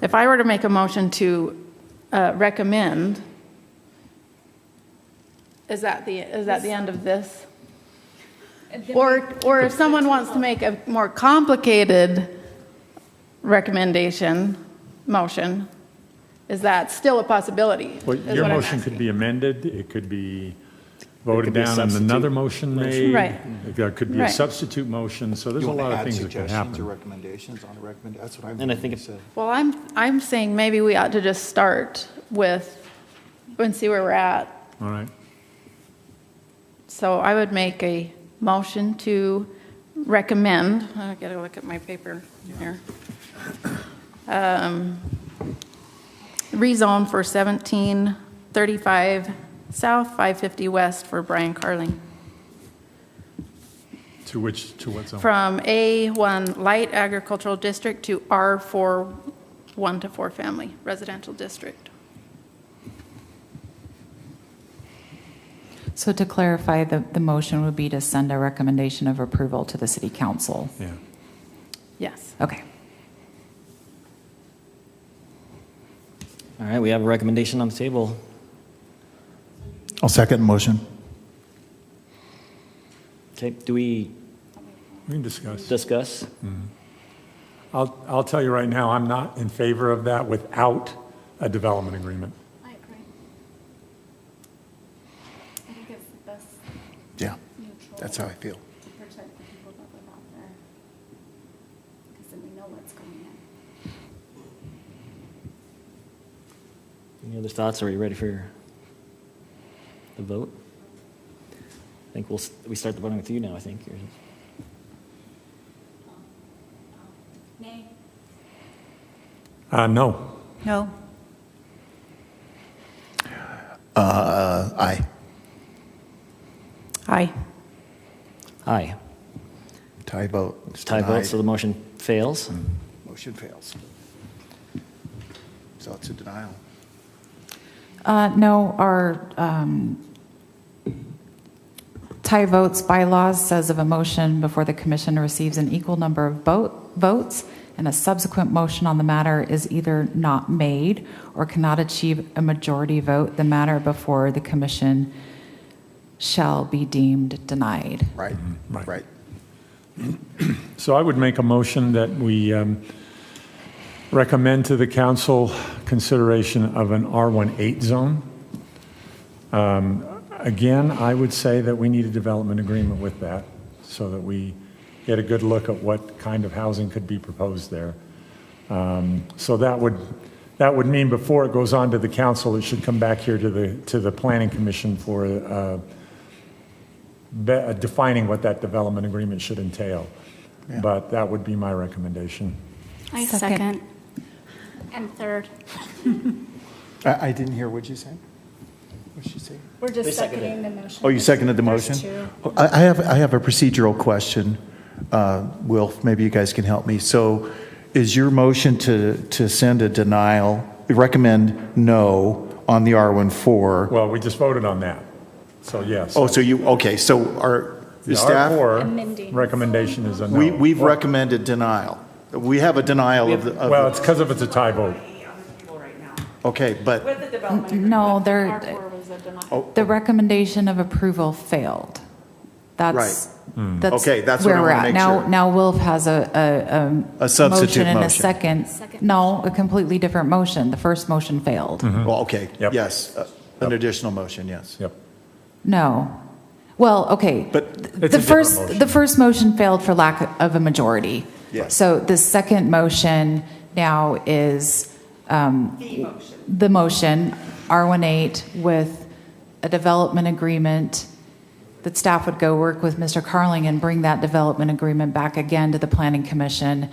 If I were to make a motion to uh, recommend, is that the, is that the end of this? Or, or if someone wants to make a more complicated recommendation, motion, is that still a possibility? Well, is your what I'm motion could be amended, it could be voted could be a down and another substitute motion motion. made. Right. There could be a Right. substitute motion, so there's You a want lot to of add things that can suggestions or happen. recommendations on the recommend, that's what I'm. And I think said. Well, I'm, I'm saying maybe we ought to just start with, and see where we're at, All right, So I would make a motion to recommend, I gotta look at my paper here. Um, Rezone for 1735 South, 550 West for Brian Carling. to which, to what zone? From A1 Light Agricultural District to R4 1 to 4 Family Residential District. So to clarify, the, the motion would be to send a recommendation of approval to the city council. Yeah. Yes. Okay. All right, we have a recommendation on the table. I'll second motion. Okay, do we We can discuss. discuss? I'll, I'll tell you right now, I'm not in favor of that without a development agreement. I agree. I think it's the best Yeah, neutral. that's how I feel. To protect the people that live out there. Because then we know what's going on. Any other thoughts? Are you ready for the vote? I think we'll, s- we start the voting with you now, I think. You're- Nay. Uh, no, No. Uh, aye. Aye. Aye. Tie vote. It's Tie vote, denied. so the motion fails. Motion fails. So it's a denial. Uh, no, our, um, tie votes bylaws says of a motion before the commission receives an equal number of vote, votes, and a subsequent motion on the matter is either not made or cannot achieve a majority vote, the matter before the commission shall be deemed denied. Right, right. Mm-hmm. right. So I would make a motion that we um, recommend to the council consideration of an R18 zone. Um, Again, I would say that we need a development agreement with that so that we get a good look at what kind of housing could be proposed there. Um, So that would, that would mean before it goes on to the council, it should come back here to the, to the planning commission for uh, be- uh, defining what that development agreement should entail. But that would be my recommendation. I Second. second. And third. I, I didn't hear, what'd you say? What'd she say? We're just seconding the motion. Oh, you seconded the There's motion? two. Oh, I I have, I have a procedural question. Uh, Wilf, maybe you guys can help me. So is your motion to, to send a denial, recommend no on the R14? Well, we just voted on that, so yes. Oh, so you, okay, so our The staff, R4 Amending. recommendation is a no. we, we've recommended denial. We have a denial of the, of Well, the- it's because if it's a tie vote. okay, but, No, there, R4 was a denial. Oh. The recommendation of approval failed. That's, Hmm. that's Okay, that's what I where we're wanna at. make Now, sure. now Wilf has a, a, A substitute Motion and a motion. second. Second. No, a completely different motion. The first motion failed. well, okay, Yep. yes, uh, an additional motion, yes. Yep. No. Well, okay. But- Th- It's a The different first, motion. the first motion failed for lack of a majority. Yes. So the second motion now is, um. The motion. The motion, R18, with a development agreement that staff would go work with Mr. Carling and bring that development agreement back again to the planning commission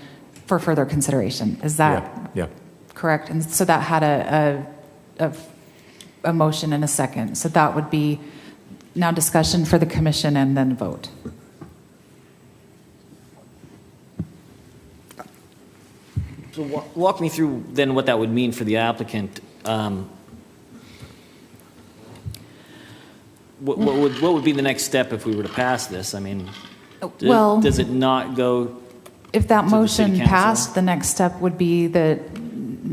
for further consideration. Is that Yeah, yeah. Correct, and so that had a, a, a, a motion and a second. So that would be now discussion for the commission and then vote. So wa- walk me through then what that would mean for the applicant. Um, What what would, what would be the next step if we were to pass this? I mean, d- Well- does it not go If that To the city motion council. passed, the next step would be that